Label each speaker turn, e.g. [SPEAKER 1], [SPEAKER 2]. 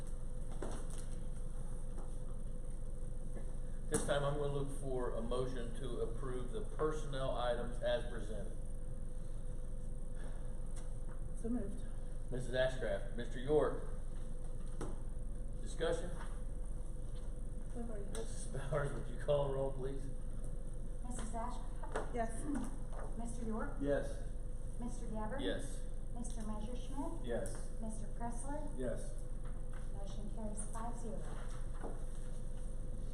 [SPEAKER 1] this time, I'm gonna look for a motion to approve the personnel items as presented.
[SPEAKER 2] So moved.
[SPEAKER 1] Mrs. Ashcraft, Mr. York. Discussion?
[SPEAKER 2] We've already-
[SPEAKER 1] Mrs. Bowers, would you call the roll, please?
[SPEAKER 3] Mrs. Ashcraft?
[SPEAKER 2] Yes.
[SPEAKER 3] Mr. York?
[SPEAKER 4] Yes.
[SPEAKER 3] Mr. Gabbard?
[SPEAKER 1] Yes.
[SPEAKER 3] Mr. Messerschmidt?
[SPEAKER 4] Yes.
[SPEAKER 3] Mr. Pressler?
[SPEAKER 4] Yes.
[SPEAKER 3] Motion carries five zero.